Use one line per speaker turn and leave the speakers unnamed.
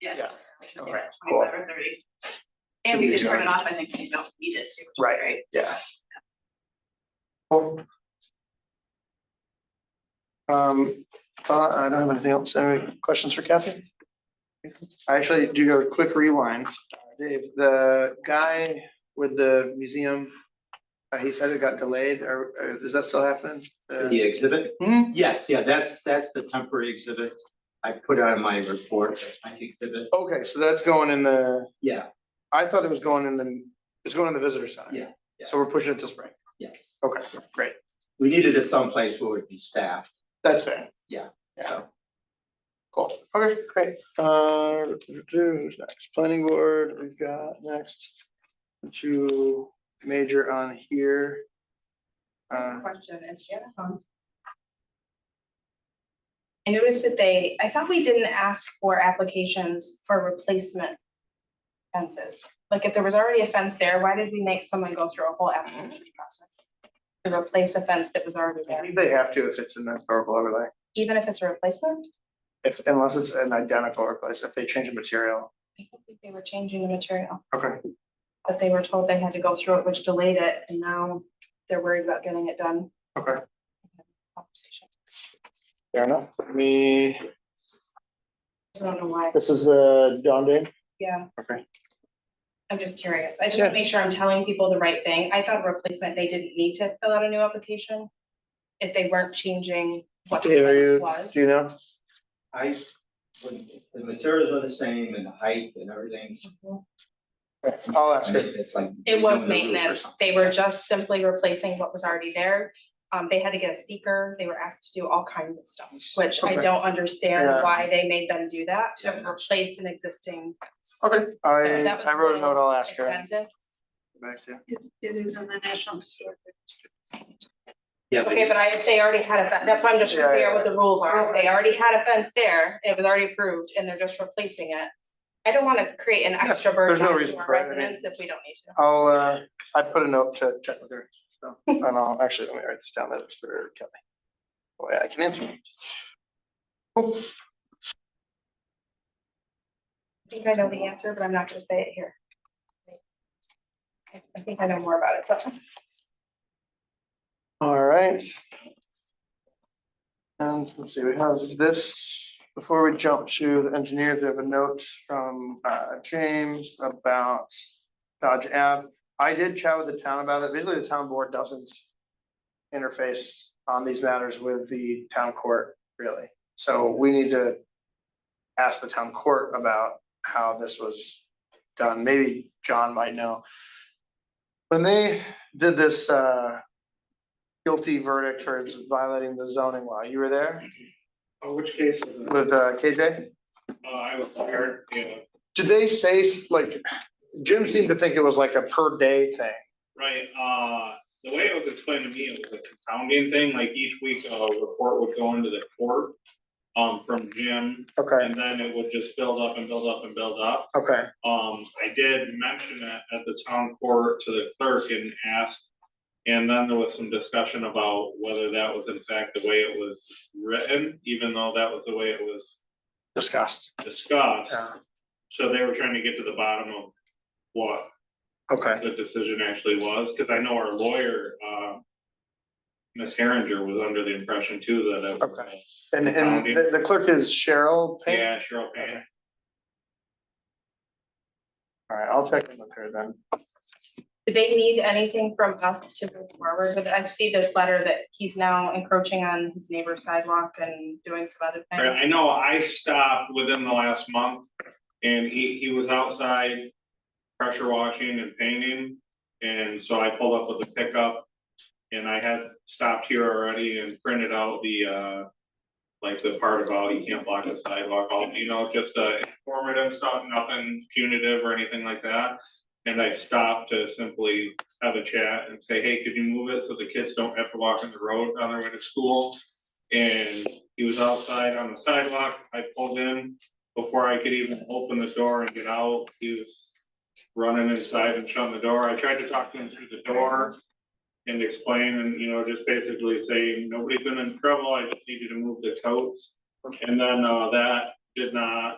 Yeah.
Yeah.
I said,
Okay,
yeah,
cool.
twenty-five or thirty. And we
Should be
could turn
done.
it off, I think, if you don't need it, too, which is
Right.
great.
Yeah. Cool. Um, thought, I don't have anything else. Any questions for Kathy? I actually do go quick rewind. Dave, the guy with the museum, uh, he said it got delayed, or, or does that still happen? Uh,
The exhibit?
hmm?
Yes, yeah, that's, that's the temporary exhibit. I put out in my report, that's my exhibit.
Okay, so that's going in the,
Yeah,
I thought it was going in the, it's going in the visitor center.
Yeah, yeah.
So we're pushing it to spring.
yes.
Okay, great.
We needed it someplace where it'd be staffed,
That's fair.
so.
Cool. Okay, great. Uh, who's next? Planning board, we've got next. Two major on here. Uh,
question is Jennifer. I noticed that they, I thought we didn't ask for applications for replacement fences. Like if there was already a fence there, why did we make someone go through a whole application process? To replace a fence that was already
I
there,
think they have to if it's in that historical overlay,
even if it's a replacement?
if unless it's an identical replace, if they change the material.
I don't think they were changing the material,
Okay,
but they were told they had to go through it, which delayed it, and now they're worried about getting it done.
okay,
Conversation.
fair enough. Me,
I don't know why,
this is the Don Dane.
yeah.
Okay,
I'm just curious. I just
Sure.
want to make sure I'm telling people the right thing. I thought replacement, they didn't need to fill out a new application. If they weren't changing what the
Dave, are
fence
you,
was.
do you know?
I, when the materials are the same and the height and everything.
I'll ask her.
It's like.
It was
redoing the roof or
maintenance.
something.
They were just simply replacing what was already there. Um, they had to get a seeker. They were asked to do all kinds of stuff, which I
Okay.
don't understand
Yeah.
why they made them do that to
Yeah.
replace an existing.
Okay,
So
I,
that was
I wrote a note, I'll ask her.
expensive.
Back to you.
It, it is on the National Historic Register.
Yeah, but
Okay, but I, if they already had a fence, that's why I'm just
Yeah,
clear
yeah.
what the rules are. If They already had a fence there, it was already approved, and they're just replacing it. I don't wanna create an
Yeah,
extra
there's
burden
no
on
reason
our
for it, I mean-
residents if we don't need to.
I'll, uh, I put a note to check with her, so, and I'll, actually, let me write this down, that is for Kelly. Oh, yeah, I can answer. Cool.
I think I know the answer, but I'm not gonna say it here. I- I think I know more about it, but
All right. And let's see, we have this, before we jump to the engineers, we have a note from, uh, James about Dodge Ave. I did chat with the town about it, basically the town board doesn't interface on these matters with the town court, really. So we need to ask the town court about how this was done, maybe John might know. When they did this, uh, guilty verdict for violating the zoning law, you were there
Oh, which case is it?
with uh, KJ?
Uh, I was there, yeah,
Did they say, like, Jim seemed to think it was like a per day thing,
right, uh, the way it was explained to me, it was a confounding thing, like each week a report would go into the court. Um, from Jim,
okay,
and then it would just build up and build up and build up.
okay,
Um, I did mention that at the town court to the clerk and asked. And then there was some discussion about whether that was in fact the way it was written, even though that was the way it was
discussed,
discussed.
yeah,
So they were trying to get to the bottom of what
okay,
the decision actually was, because I know our lawyer, uh. Ms. Herringer was under the impression too that it was,
Okay. and and the the clerk is Cheryl Payne?
yeah, Cheryl Payne.
All right, I'll check in with her then,
do they need anything from us to move forward? But I see this letter that he's now encroaching on his neighbor's sidewalk and doing some other
Right, I
things.
know I stopped within the last month and he, he was outside pressure washing and painting. And so I pulled up with the pickup and I had stopped here already and printed out the, uh, like the part about you can't block the sidewalk, all, you know, just uh, informative stuff, nothing punitive or anything like that. And I stopped to simply have a chat and say, hey, could you move it so the kids don't have to walk in the road on their way to school? And he was outside on the sidewalk, I pulled in, before I could even open the door and get out, he was running inside and shutting the door, I tried to talk to him through the door. And explain and, you know, just basically saying, nobody's been in trouble, I just need you to move the totes. And then, uh, that did not